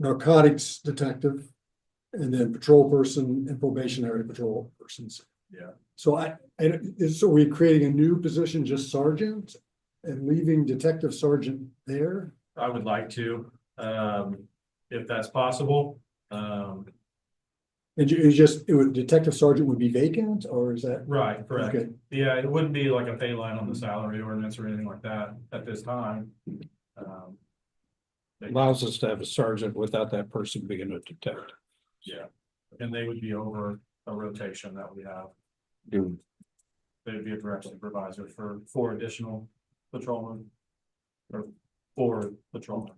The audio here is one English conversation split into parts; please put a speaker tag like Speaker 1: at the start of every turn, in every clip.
Speaker 1: narcotics detective, and then patrol person and probationary patrol persons.
Speaker 2: Yeah.
Speaker 1: So I, and is, so we're creating a new position, just sergeant, and leaving detective sergeant there?
Speaker 2: I would like to, um, if that's possible, um,
Speaker 1: And you, you just, it would, detective sergeant would be vacant, or is that?
Speaker 2: right, correct.
Speaker 1: Okay.
Speaker 2: Yeah, it wouldn't be like a pay line on the salary ordinance or anything like that at this time. Um,
Speaker 3: allows us to have a sergeant without that person being a detective.
Speaker 2: yeah, and they would be over a rotation that we have.
Speaker 4: Do,
Speaker 2: They'd be a direct supervisor for four additional patrolmen. Or four patrolmen.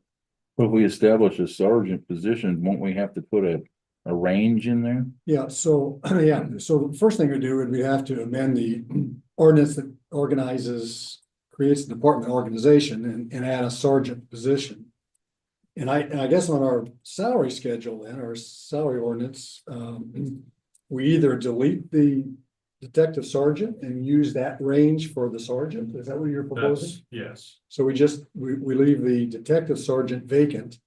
Speaker 4: if we establish a sergeant position, won't we have to put a, a range in there?
Speaker 1: Yeah, so, yeah, so the first thing we do would we have to amend the ordinance that organizes, creates the department organization and, and add a sergeant position. And I, and I guess on our salary schedule and our salary ordinance, um, we either delete the detective sergeant and use that range for the sergeant, is that what you're proposing?
Speaker 2: That's, yes,
Speaker 1: So we just, we, we leave the detective sergeant vacant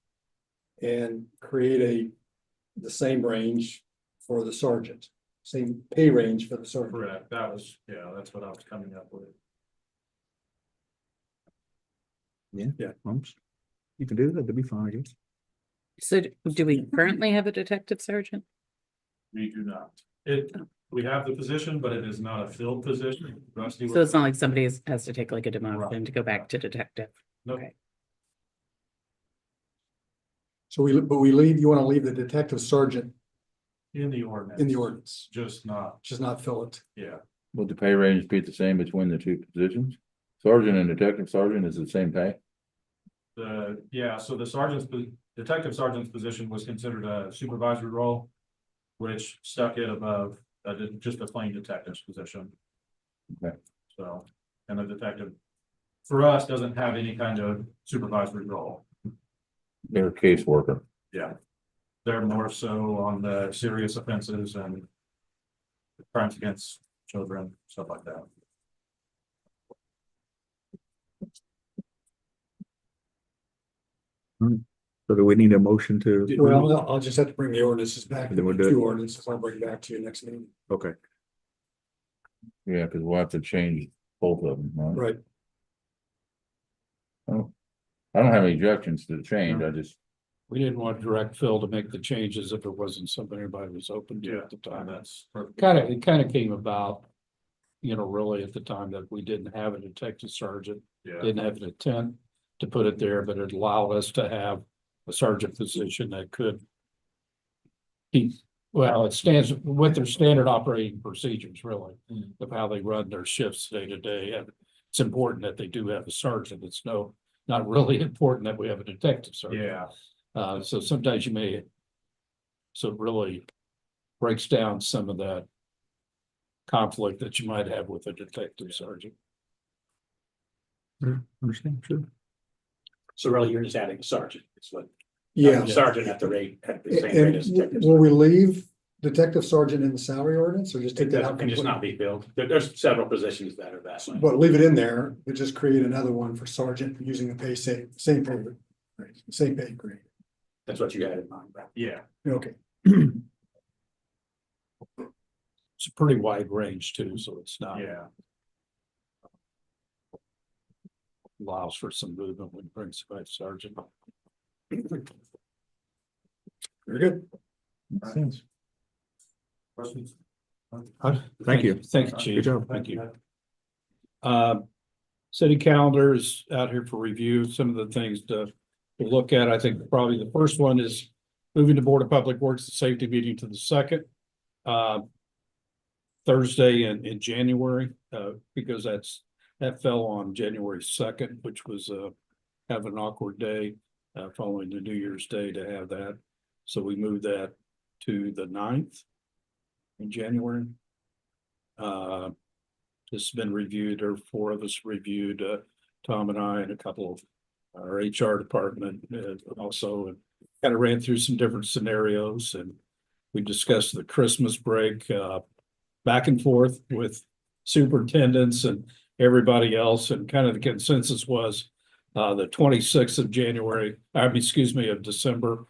Speaker 1: and create a, the same range for the sergeant, same pay range for the sergeant.
Speaker 2: correct. That was, yeah, that's what I was coming up with.
Speaker 5: You can do that, that'd be fine, I guess.
Speaker 6: So d- do we currently have a detective sergeant?
Speaker 2: We do not. It, we have the position, but it is not a filled position. Rusty.
Speaker 6: So it's not like somebody has- has to take like a demotion
Speaker 2: Right.
Speaker 6: to go back to detective.
Speaker 1: So we, but we leave, you want to leave the detective sergeant
Speaker 2: In the ordinance.
Speaker 1: in the ordinance,
Speaker 2: Just not,
Speaker 1: just not fill it.
Speaker 2: yeah,
Speaker 4: Would the pay range be the same between the two positions? Sergeant and detective sergeant is the same pay?
Speaker 2: the, yeah, so the sergeant's, po- detective sergeant's position was considered a supervisory role. Which stuck it above, uh, ju- just a plain detective's position.
Speaker 4: Okay.
Speaker 2: So, and the detective, for us, doesn't have any kind of supervisory role.
Speaker 4: They're a caseworker.
Speaker 2: They're more so on the serious offenses and. Crimes against children, stuff like that.
Speaker 5: So do we need a motion to?
Speaker 1: Well, I'll- I'll just have to bring the ordinances back,
Speaker 5: Then we'll do it.
Speaker 1: two ordinances, I'll bring it back to you next meeting.
Speaker 5: Okay,
Speaker 4: Yeah, because we'll have to change both of them, right?
Speaker 1: Right.
Speaker 4: I don't have any objections to the change. I just,
Speaker 3: We didn't want direct Phil to make the changes if it wasn't something everybody was open to at the
Speaker 2: And
Speaker 3: time.
Speaker 2: that's. perfect.
Speaker 3: Kind of, it kind of came about, you know, really at the time that we didn't have a detective sergeant,
Speaker 2: Yeah,
Speaker 3: didn't have an intent to put it there, but it allowed us to have a sergeant position that could keep, well, it stands with their standard operating procedures, really,
Speaker 2: Mm.
Speaker 3: of how they run their shifts day to day. And it's important that they do have a sergeant. It's no, not really important that we have a detective sergeant.
Speaker 2: yeah.
Speaker 3: Uh, so sometimes you may. So it really breaks down some of that. Conflict that you might have with a detective sergeant.
Speaker 5: understand, sure.
Speaker 7: So really, you're just adding a sergeant, it's what,
Speaker 1: Yeah,
Speaker 7: sergeant at the rate, at the same rate
Speaker 1: and
Speaker 7: as detective.
Speaker 1: will we leave detective sergeant in the salary ordinance, or just
Speaker 7: It
Speaker 1: take that out?
Speaker 7: doesn't- can just not be
Speaker 1: completely?
Speaker 7: billed, there, there's several positions that are that way.
Speaker 1: But leave it in there, but just create another one for sergeant using the pay same, same pay, grade, same pay grade.
Speaker 7: that's what you had in mind, right?
Speaker 2: Yeah,
Speaker 1: Okay,
Speaker 3: It's a pretty wide range too, so it's not
Speaker 2: yeah,
Speaker 3: allows for some movement when it brings by sergeant.
Speaker 1: very good.
Speaker 4: makes sense.
Speaker 2: questions?
Speaker 5: Thank you.
Speaker 3: Thank you,
Speaker 5: Good
Speaker 3: chief.
Speaker 5: job.
Speaker 3: Thank you. Um, city calendar is out here for review, some of the things to to look at, I think probably the first one is moving the Board of Public Works and Safety meeting to the second. uh, Thursday in, in January, uh, because that's, that fell on January second, which was, uh, have an awkward day, uh, following the New Year's Day to have that. So we moved that to the 9th in January. Uh, this has been reviewed, or four of us reviewed, uh, Tom and I and a couple of our HR department, uh, also kind of ran through some different scenarios and we discussed the Christmas break, uh, back and forth with superintendents and everybody else and kind of the consensus was uh, the twenty-sixth of January, I mean, excuse me, of December